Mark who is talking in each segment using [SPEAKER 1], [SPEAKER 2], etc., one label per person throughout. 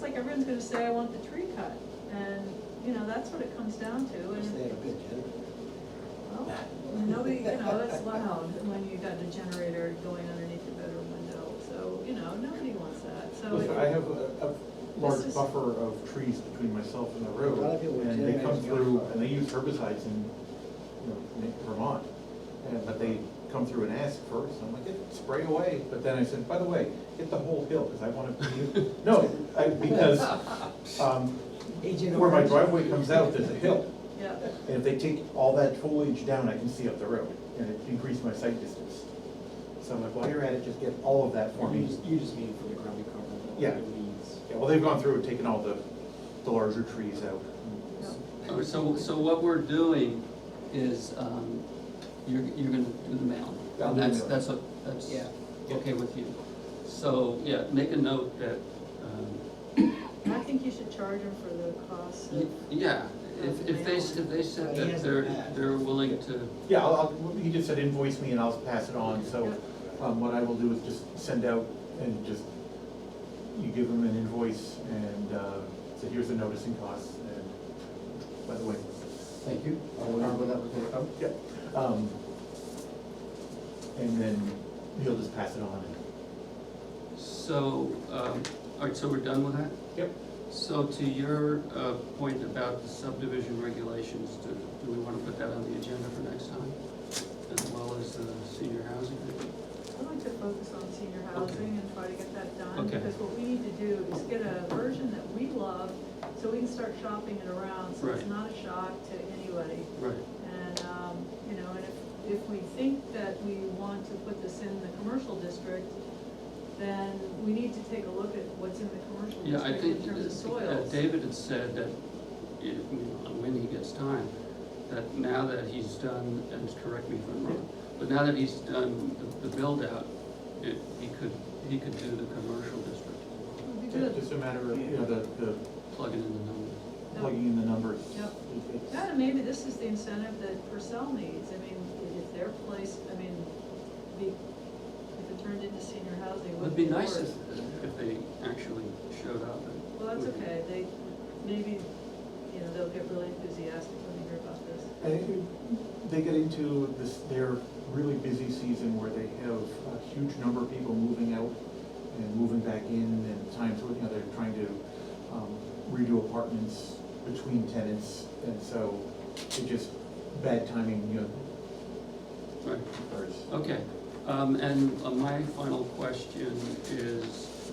[SPEAKER 1] like, everyone's gonna say, I want the tree cut, and, you know, that's what it comes down to,
[SPEAKER 2] Wish they
[SPEAKER 1] and,
[SPEAKER 2] had a good generator.
[SPEAKER 1] well, nobody, you know, it's loud when you got a generator going underneath your bedroom window, so, you know, nobody wants that, so.
[SPEAKER 3] Listen, I
[SPEAKER 1] it-
[SPEAKER 3] have a, a large
[SPEAKER 1] This is-
[SPEAKER 3] buffer of trees between myself and the road,
[SPEAKER 2] A lot of people with
[SPEAKER 3] and they come
[SPEAKER 2] generators
[SPEAKER 3] through,
[SPEAKER 2] outside.
[SPEAKER 3] and they use herbicides in, you know, in Vermont. And, but they come through and ask first, and I'm like, "Yeah, spray away, but then I said, by the way, get the whole hill, because I want to, no, I, because, um,
[SPEAKER 2] Agent
[SPEAKER 3] where my
[SPEAKER 2] Orange.
[SPEAKER 3] driveway comes out, there's a hill.
[SPEAKER 1] Yeah,
[SPEAKER 3] And if they take all that foliage down, I can see up the road, and it increased my sight distance. So I'm like, while you're at it, just get all of that for
[SPEAKER 4] You
[SPEAKER 3] me.
[SPEAKER 4] just, you just mean for the ground cover.
[SPEAKER 3] Yeah.
[SPEAKER 4] the Leaves.
[SPEAKER 3] Yeah, well, they've gone through and taken all the, the larger trees out.
[SPEAKER 1] yeah.
[SPEAKER 5] So, so what we're doing is, um, you're, you're gonna do the mound.
[SPEAKER 3] Yeah, I'll
[SPEAKER 5] And
[SPEAKER 3] do the
[SPEAKER 5] that's,
[SPEAKER 3] mound.
[SPEAKER 5] that's, what- that's
[SPEAKER 4] Yeah.
[SPEAKER 5] okay with you. So, yeah, make a note that, um,
[SPEAKER 1] I think you should charge them for the cost
[SPEAKER 5] y-
[SPEAKER 1] of,
[SPEAKER 5] yeah, if, if they, s- if they said
[SPEAKER 2] He
[SPEAKER 5] that
[SPEAKER 2] hasn't
[SPEAKER 5] they're,
[SPEAKER 2] asked.
[SPEAKER 5] they're willing to,
[SPEAKER 3] Yeah, I'll, I'll, he just said invoice me and I'll pass it on, so, um, what I will do is just send out and just, you give them an invoice and, uh, say, here's the noticing costs and, by the way, thank you.
[SPEAKER 4] Oh,
[SPEAKER 3] I will remember that was gonna come. Yeah, um, and then he'll just pass it on and,
[SPEAKER 5] so, um, all right, so we're done with that?
[SPEAKER 3] yep.
[SPEAKER 5] So to your, uh, point about the subdivision regulations, do, do we wanna put that on the agenda for next time? As well as the senior housing?
[SPEAKER 1] I'd like to focus on senior housing and try to get that done,
[SPEAKER 5] Okay.
[SPEAKER 1] because what we need to do is get a version that we love, so we can start shopping it around, so it's
[SPEAKER 5] Right.
[SPEAKER 1] not a shock to anybody.
[SPEAKER 5] Right,
[SPEAKER 1] And, um, you know, and if, if we think that we want to put this in the commercial district, then we need to take a look at what's in the commercial
[SPEAKER 5] yeah, I
[SPEAKER 1] district
[SPEAKER 5] think
[SPEAKER 1] in terms of
[SPEAKER 5] that
[SPEAKER 1] soils.
[SPEAKER 5] David had said that, if, you know, when he gets time, that now that he's done, and correct me if I'm wrong, but now that he's done the, the build out, it, he could, he could do the commercial district,
[SPEAKER 1] Would be
[SPEAKER 3] It's
[SPEAKER 1] good.
[SPEAKER 3] Just a matter of, you know, the, the
[SPEAKER 5] plug it in the numbers.
[SPEAKER 3] plugging in the numbers.
[SPEAKER 1] Yep.
[SPEAKER 3] It- it's-
[SPEAKER 1] Yeah, and maybe this is the incentive that Purcell needs, I mean, if their place, I mean, be, if it turned into senior housing, it
[SPEAKER 5] It'd
[SPEAKER 1] would
[SPEAKER 5] be
[SPEAKER 1] be
[SPEAKER 5] nice if,
[SPEAKER 1] worse.
[SPEAKER 5] if they actually showed up. and-
[SPEAKER 1] Well, that's okay, they, maybe, you know, they'll get really enthusiastic when they hear about this.
[SPEAKER 3] I think They get into this, their really busy season where they have a huge number of people moving out and moving back in and times where, you know, they're trying to um, redo apartments between tenants. And so it just, bad timing, you know,
[SPEAKER 5] Right,
[SPEAKER 3] occurs.
[SPEAKER 5] okay, um, and uh, my final question is,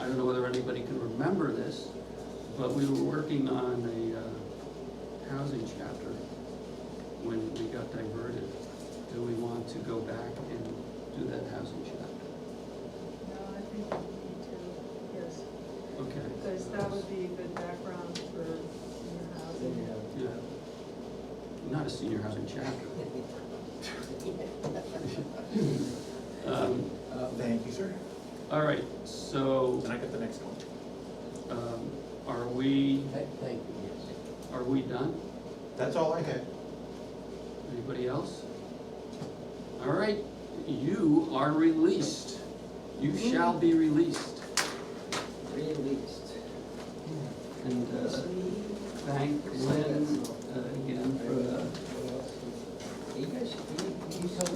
[SPEAKER 5] I don't know whether anybody can remember this, but we were working on a, uh, housing chapter when we got diverted. Do we want to go back and do that housing chapter?
[SPEAKER 1] No, I think we need to, yes,
[SPEAKER 5] Okay.
[SPEAKER 1] because that would be a good background for senior
[SPEAKER 2] Then you
[SPEAKER 1] housing.
[SPEAKER 2] have-
[SPEAKER 5] Yeah. Not a senior housing chapter. Um,
[SPEAKER 2] Uh,
[SPEAKER 3] Thank you, sir.
[SPEAKER 5] all right, so.
[SPEAKER 3] And I got the next one.
[SPEAKER 5] Um, Are we,
[SPEAKER 4] uh, Thank, thank you, yes.
[SPEAKER 5] are we done?
[SPEAKER 3] That's all I had.
[SPEAKER 5] Anybody else? All right, you are released. You shall be released.
[SPEAKER 2] Released.
[SPEAKER 5] And uh, thank Lynn uh, again for the
[SPEAKER 2] You guys, you, you tell